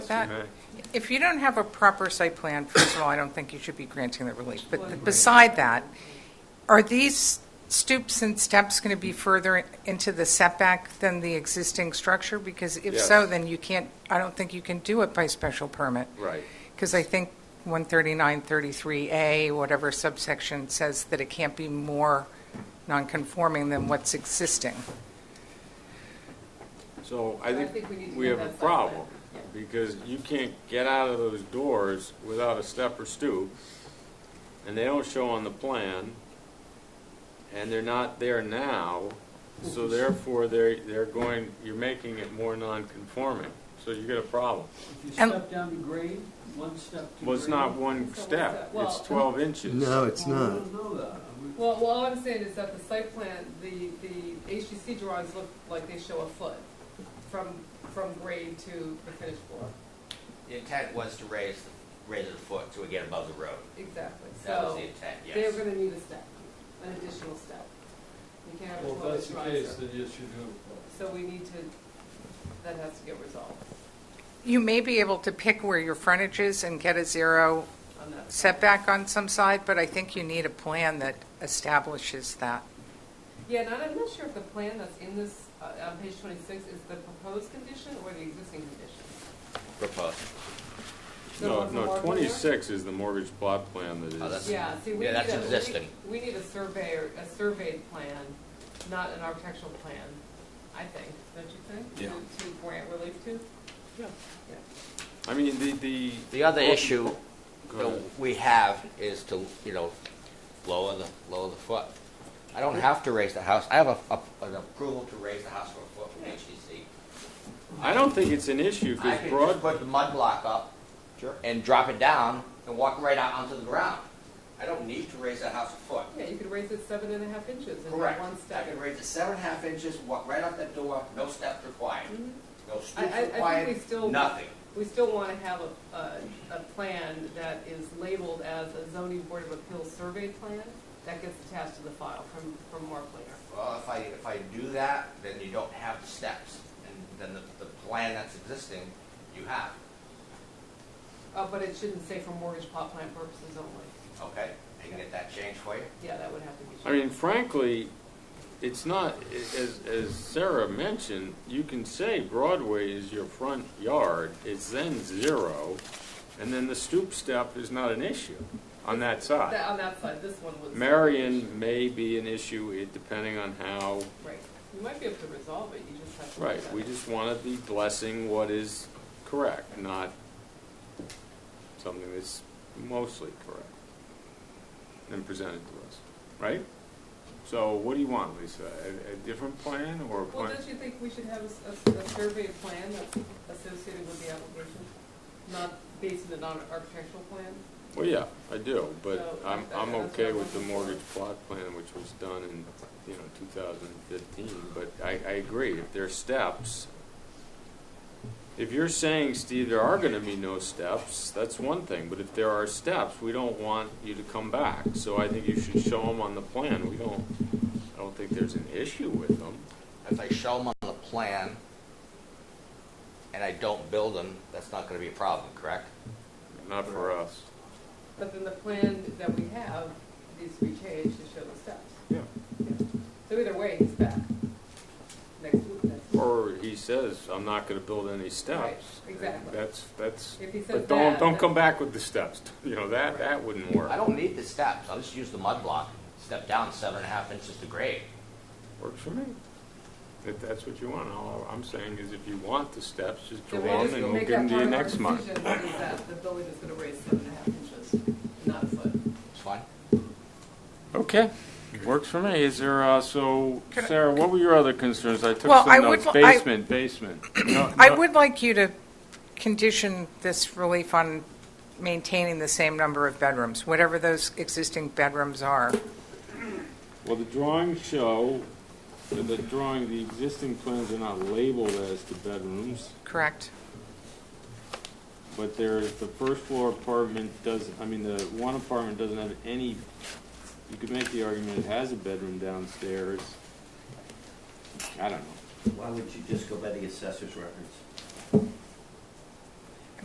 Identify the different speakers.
Speaker 1: That- If you don't have a proper site plan, first of all, I don't think you should be granting the relief. But beside that, are these stoops and steps going to be further into the setback than the existing structure? Because if so,
Speaker 2: Yes.
Speaker 1: then you can't, I don't think you can do it by special permit.
Speaker 2: Right.
Speaker 1: Because I think 13933A, whatever subsection, says that it can't be more nonconforming than what's existing.
Speaker 2: So I
Speaker 3: I think we need
Speaker 2: think
Speaker 3: to
Speaker 2: we
Speaker 3: go
Speaker 2: have a
Speaker 3: that side plan.
Speaker 2: problem,
Speaker 3: Yeah.
Speaker 2: because you can't get out of those doors without a step or stoop, and they don't show on the plan, and they're not there now, so therefore, they're, they're going, you're making it more non-conforming, so you get a problem.
Speaker 4: If you
Speaker 1: And-
Speaker 4: step down to grade, one step to grade. Oh,
Speaker 2: Well, it's not one
Speaker 3: So
Speaker 2: step,
Speaker 3: what's
Speaker 2: it's
Speaker 3: that?
Speaker 2: twelve inches.
Speaker 5: No, Oh, it's
Speaker 4: I
Speaker 5: not.
Speaker 4: don't know that. I would-
Speaker 3: Well, well, all I'm saying is that the site plan, the, the HGC drawings look like they show a foot from, from grade to the finished floor.
Speaker 6: The intent was to raise, the- raise it a foot to get above the road.
Speaker 3: Exactly,
Speaker 6: That was
Speaker 3: so
Speaker 6: the intent,
Speaker 3: they're
Speaker 6: yes.
Speaker 3: gonna need a step, an additional step. You can't have a
Speaker 4: Well, if that's
Speaker 3: twelve-inch
Speaker 4: the case,
Speaker 3: riser.
Speaker 4: then yes, you do.
Speaker 3: So we need to, that has to get resolved
Speaker 1: You may be able to pick where your frontage is and get a zero
Speaker 3: on that.
Speaker 1: setback on some side, but I think you need a plan that establishes that.
Speaker 3: Yeah, and I'm not sure if the plan that's in this, uh, on page twenty-six is the proposed condition or the existing condition.
Speaker 6: Proposed.
Speaker 3: So
Speaker 2: No,
Speaker 3: it's a
Speaker 2: no,
Speaker 3: marker?
Speaker 2: twenty-six is the mortgage plot plan
Speaker 6: Oh,
Speaker 2: that
Speaker 6: that's-
Speaker 2: is,
Speaker 3: Yeah, see, we need
Speaker 6: Yeah,
Speaker 3: a.
Speaker 6: that's
Speaker 3: we-
Speaker 6: existing.
Speaker 3: We need a surveyor, a surveyed plan, not an architectural plan, I think, don't you think?
Speaker 2: Yeah.
Speaker 3: To- To grant relief to? Yeah.
Speaker 2: I mean, the, the.
Speaker 6: The other
Speaker 2: Oh,
Speaker 6: issue
Speaker 2: go
Speaker 6: that
Speaker 2: ahead.
Speaker 6: we have is to, you know, lower the, lower the foot. I don't have to raise the house, I have a, a- an approval to raise the house for a foot from HGC.
Speaker 2: I don't think it's an issue,
Speaker 6: I
Speaker 2: because
Speaker 6: could
Speaker 2: broad,
Speaker 6: just put the mud block up and drop it down and walk right out onto the ground. I don't need to raise the house a foot.
Speaker 3: Yeah, you could raise it seven and a half inches in
Speaker 6: Correct.
Speaker 3: one
Speaker 6: I
Speaker 3: step.
Speaker 6: can raise it seven and a half inches, walk right out that door, no steps required,
Speaker 3: Mhm.
Speaker 6: no
Speaker 3: I,
Speaker 6: stoops
Speaker 3: I, I think
Speaker 6: required,
Speaker 3: we still.
Speaker 6: nothing.
Speaker 3: We still want to have a, a, a plan that is labeled as a zoning board of appeals survey plan that gets attached to the file from, from Mark later.
Speaker 6: Well, if I, if I do that, then you don't have the steps, and then the, the plan that's existing, you have,
Speaker 3: Uh, but it shouldn't say for mortgage plot plan purposes only.
Speaker 6: okay? I can get that changed for you?
Speaker 3: Yeah, that would have to be.
Speaker 2: I mean, frankly, it's not, as, as Sarah mentioned, you can say Broadway is your front yard, it's then zero, and then the stoop step is not an issue on that
Speaker 3: That-
Speaker 2: side.
Speaker 3: On that side, this one was.
Speaker 2: Marion may be an issue it- depending on how,
Speaker 3: Right. You might be able to resolve it, you just have to.
Speaker 2: right, we just want to be blessing what is correct, not something that's mostly correct and presented to us, right? So what do you want, Lisa? A, a different plan or a
Speaker 3: Well,
Speaker 2: plan?
Speaker 3: don't you think we should have a, s- a s- a survey plan that's associated with the application? Not based on an ar- architectural plan?
Speaker 2: Well, yeah, I do, but
Speaker 3: So,
Speaker 2: I'm,
Speaker 3: that-
Speaker 2: I'm
Speaker 3: that's
Speaker 2: okay
Speaker 3: not
Speaker 2: with the
Speaker 3: one.
Speaker 2: mortgage plot plan, which was done in, you know, 2015, but I, I agree, if there are steps, if you're saying, Steve, there are gonna be no steps, that's one thing, but if there are steps, we don't want you to come back, so I think you should show them on the plan, we don't, I don't think there's an issue with them.
Speaker 6: If I show them on the plan, and I don't build them, that's not gonna be a problem, correct?
Speaker 2: Not for us.
Speaker 3: But then the plan that we have needs to be changed to show the steps.
Speaker 2: Yeah.
Speaker 3: So either way, he's back next week, next week.
Speaker 2: Or he says, I'm not gonna build any steps.
Speaker 3: Right, exactly.
Speaker 2: That's, that's,
Speaker 3: If he says
Speaker 2: but don't,
Speaker 3: that,
Speaker 2: don't
Speaker 3: then-
Speaker 2: come back with the steps, you know, that, that wouldn't work.
Speaker 6: I don't need the steps, I'll just use the mud block, step down seven and a half inches to grade.
Speaker 2: Works for me. If that's what you want, all I'm saying is if you want the steps, just draw
Speaker 3: Then we'll
Speaker 2: them
Speaker 3: just
Speaker 2: and we'll
Speaker 3: make
Speaker 2: give them to
Speaker 3: that part
Speaker 2: you
Speaker 3: of our
Speaker 2: next month.
Speaker 3: decision Is that the building is gonna raise seven and a half inches, not a foot.
Speaker 6: It's fine?
Speaker 2: Okay, works for me. Is there, uh, so,
Speaker 1: Can I-
Speaker 2: Sarah, what were your other concerns? I took
Speaker 1: Well, I
Speaker 2: some
Speaker 1: would
Speaker 2: notes.
Speaker 1: li- I-
Speaker 2: Basement, basement. No,
Speaker 1: I
Speaker 2: no-
Speaker 1: would like you to condition this relief on maintaining the same number of bedrooms, whatever those existing bedrooms are.
Speaker 2: Well, the drawings show, that the drawing, the existing plans are not labeled as the bedrooms,
Speaker 1: Correct?
Speaker 2: but there's, the first floor apartment does, I mean, the one apartment doesn't have any, you could make the argument it has a bedroom downstairs. I don't know.
Speaker 7: Why would you just go by the assessor's records?